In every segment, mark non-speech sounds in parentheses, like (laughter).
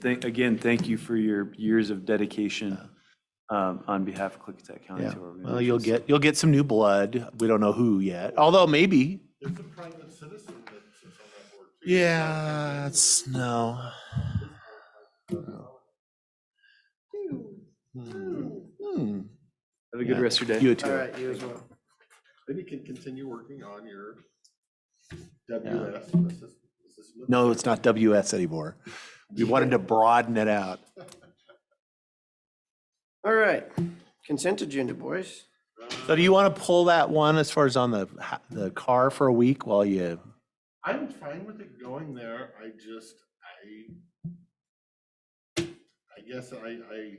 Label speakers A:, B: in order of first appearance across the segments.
A: Thank- Again, thank you for your years of dedication um, on behalf of Clickatuck County
B: Yeah.
A: to our
B: Well, you'll
A: organizations.
B: get, you'll get some new blood. We don't know who yet, although maybe.
C: There's a private citizen that sits on that board too.
B: Yeah, it's, no. Hmm. Hmm.
A: Have a good
B: Yeah.
A: rest of your day.
B: You
C: All
B: too.
C: right, you as well. Then you can continue working on your WS. assist- assistant.
B: No, it's not WS anymore. We wanted to broaden it out.
D: All right, consent agenda, boys.
B: So do you want to pull that one as far as on the, ha- the car for a week while you,
C: I'm fine with it going there. I just, I, I guess I, I,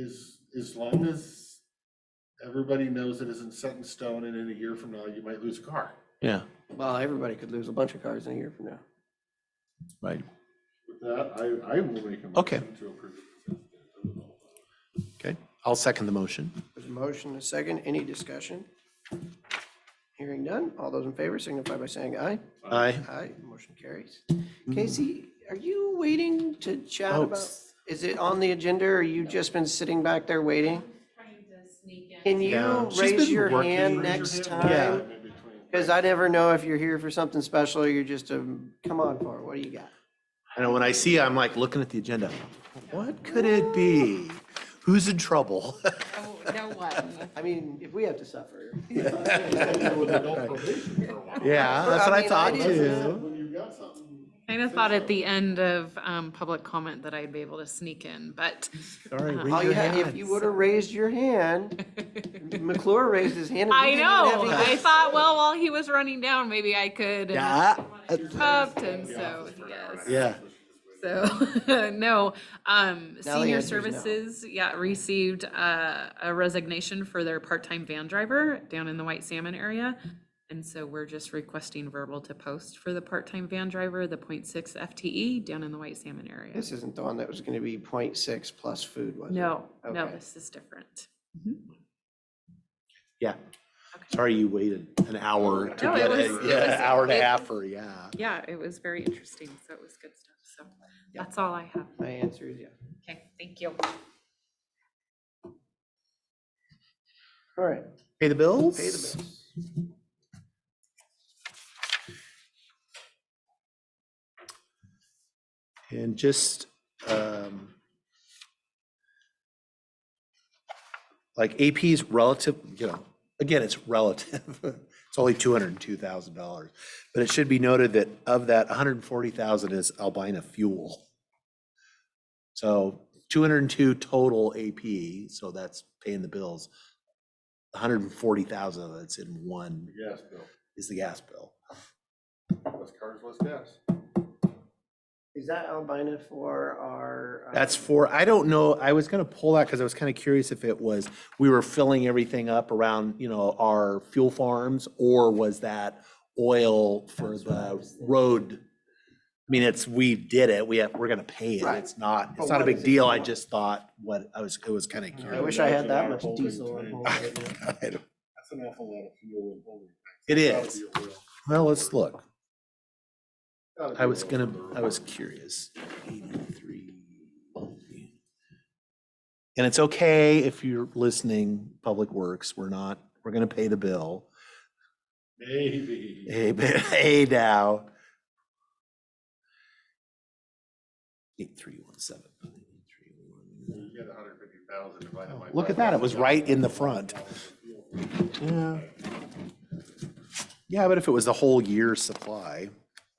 C: as, as long as everybody knows it isn't set in stone and in a year from now, you might lose a car.
B: yeah,
D: Well, everybody could lose a bunch of cars in a year from now.
B: right?
C: With that, I, I will make a
B: Okay.
C: motion to approve. the consent agenda.
B: Okay. I'll second the motion.
D: There's a motion, a second, any discussion? Hearing none, all those in favor signify by saying aye.
B: Aye.
D: Aye, motion carries. Casey, are you waiting to chat
B: Oh,
D: about, is it on the agenda, or you just been sitting back there waiting?
E: trying to sneak in.
D: Can
B: Yeah,
D: you
B: she's
D: raise
B: been
D: your
B: working.
D: hand
C: Raise your
D: next
C: hand.
D: time?
C: In (laughs) between.
D: Because I never know if you're here for something special, or you're just a, come on for it, what do you got?
B: And when I see, I'm like looking at the agenda. What could it be? Who's in trouble? (laughs)
E: Oh, no one. (laughs)
D: I mean, if we have to suffer.
C: With adult probation for a while.
B: Yeah, that's
D: I
B: what I
D: mean, I
B: thought
D: didn't-
B: too.
C: When you've got something.
E: Kind of thought at the end of um, public comment that I'd be able to sneak in, but
B: Sorry, raise
D: All you
B: your
D: had, Oh, if
B: hand.
D: you would have raised your (laughs) hand, McClure raised his hand. and we
E: I
D: didn't even have
E: know.
D: to- (laughs)
E: I thought, well, while he was running down, maybe I could. and
B: Yeah, that's-
E: Upped him, so, yes.
B: yeah.
E: So, (laughs) no,
D: Now
E: um,
D: the
E: senior
D: answer's no.
E: services, yeah, received, uh, a resignation for their part-time van driver down in the White Salmon area. And so we're just requesting verbal to post for the part-time van driver, the 0.6 FTE E, down in the White Salmon area.
D: This isn't the one that was gonna be 0.6 plus food, was it?
E: No, no,
D: Okay.
E: this is different.
B: Yeah. Sorry you waited an hour to
E: No, it
B: get it.
E: was- it
B: Yeah,
E: was-
B: an hour and a
E: it-
B: half for, yeah.
E: Yeah, it was very interesting, so it was good stuff, so
D: Yeah.
E: that's all I have.
D: My answer is yeah.
E: Okay, thank you.
D: All right,
B: Pay the bills?
D: pay the bills.
B: And just, um, like AP's relative, you know, again, it's relative. (laughs) It's only two hundred and two thousand dollars. But it should be noted that of that, $140,000 is Albina Fuel. So two hundred and two total AP, so that's paying the bills. hundred and forty thousand of it's in one
C: Gas bill,
B: is the gas bill.
C: less cars, less gas.
D: Is that Albina for our? um,
B: That's for, I don't know, I was gonna pull that because I was kind of curious if it was, we were filling everything up around, you know, our fuel farms, or was that oil for
D: That's what I
B: the
D: was thinking.
B: road? I mean, it's, we did it, we have, we're gonna pay it,
D: Right.
B: it's not,
D: But
B: it's not a
D: what
B: big
D: is it
B: deal, I
D: for?
B: just thought, what, I was, it was kind of
D: I
B: curious.
D: wish I had that
C: Imagine
D: much
C: our holding
D: diesel. on
C: tank.
D: hold right now.
B: I don't-
C: That's an awful lot of fuel and holding.
B: It
C: tanks.
B: is,
C: It's gotta be oil.
B: well, let's look,
C: Gotta be
B: I was
C: oil.
B: gonna, I was curious. 83. And it's okay if you're listening, Public Works, we're not, we're gonna pay the bill.
C: Maybe.
B: Hey, (laughs) but- hey now. Eight, three, one, seven.
C: You get a hundred fifty thousand divided by.
B: Oh, Look at
C: five
B: that, it was
C: thousand
B: right in the
C: gallons
B: front.
C: of fuel.
B: Yeah. Yeah, but if it was the whole year's supply,
C: I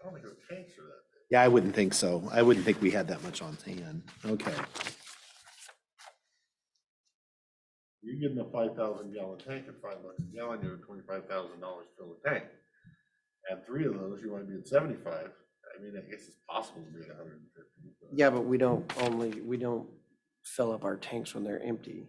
C: don't think those tanks are that big.
B: yeah, I wouldn't think so. I wouldn't think we had that much on hand. Okay.
C: You give them a five thousand gallon tank at five bucks a gallon, you're at twenty-five thousand dollars to fill a tank. Add three of those, you wanna be at seventy-five. I mean, I guess it's possible to be at hundred and fifty.
D: Yeah, but we don't only, we don't fill up our tanks when they're empty.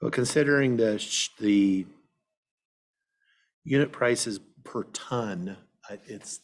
B: But considering the, sh- the unit prices per ton, I- it's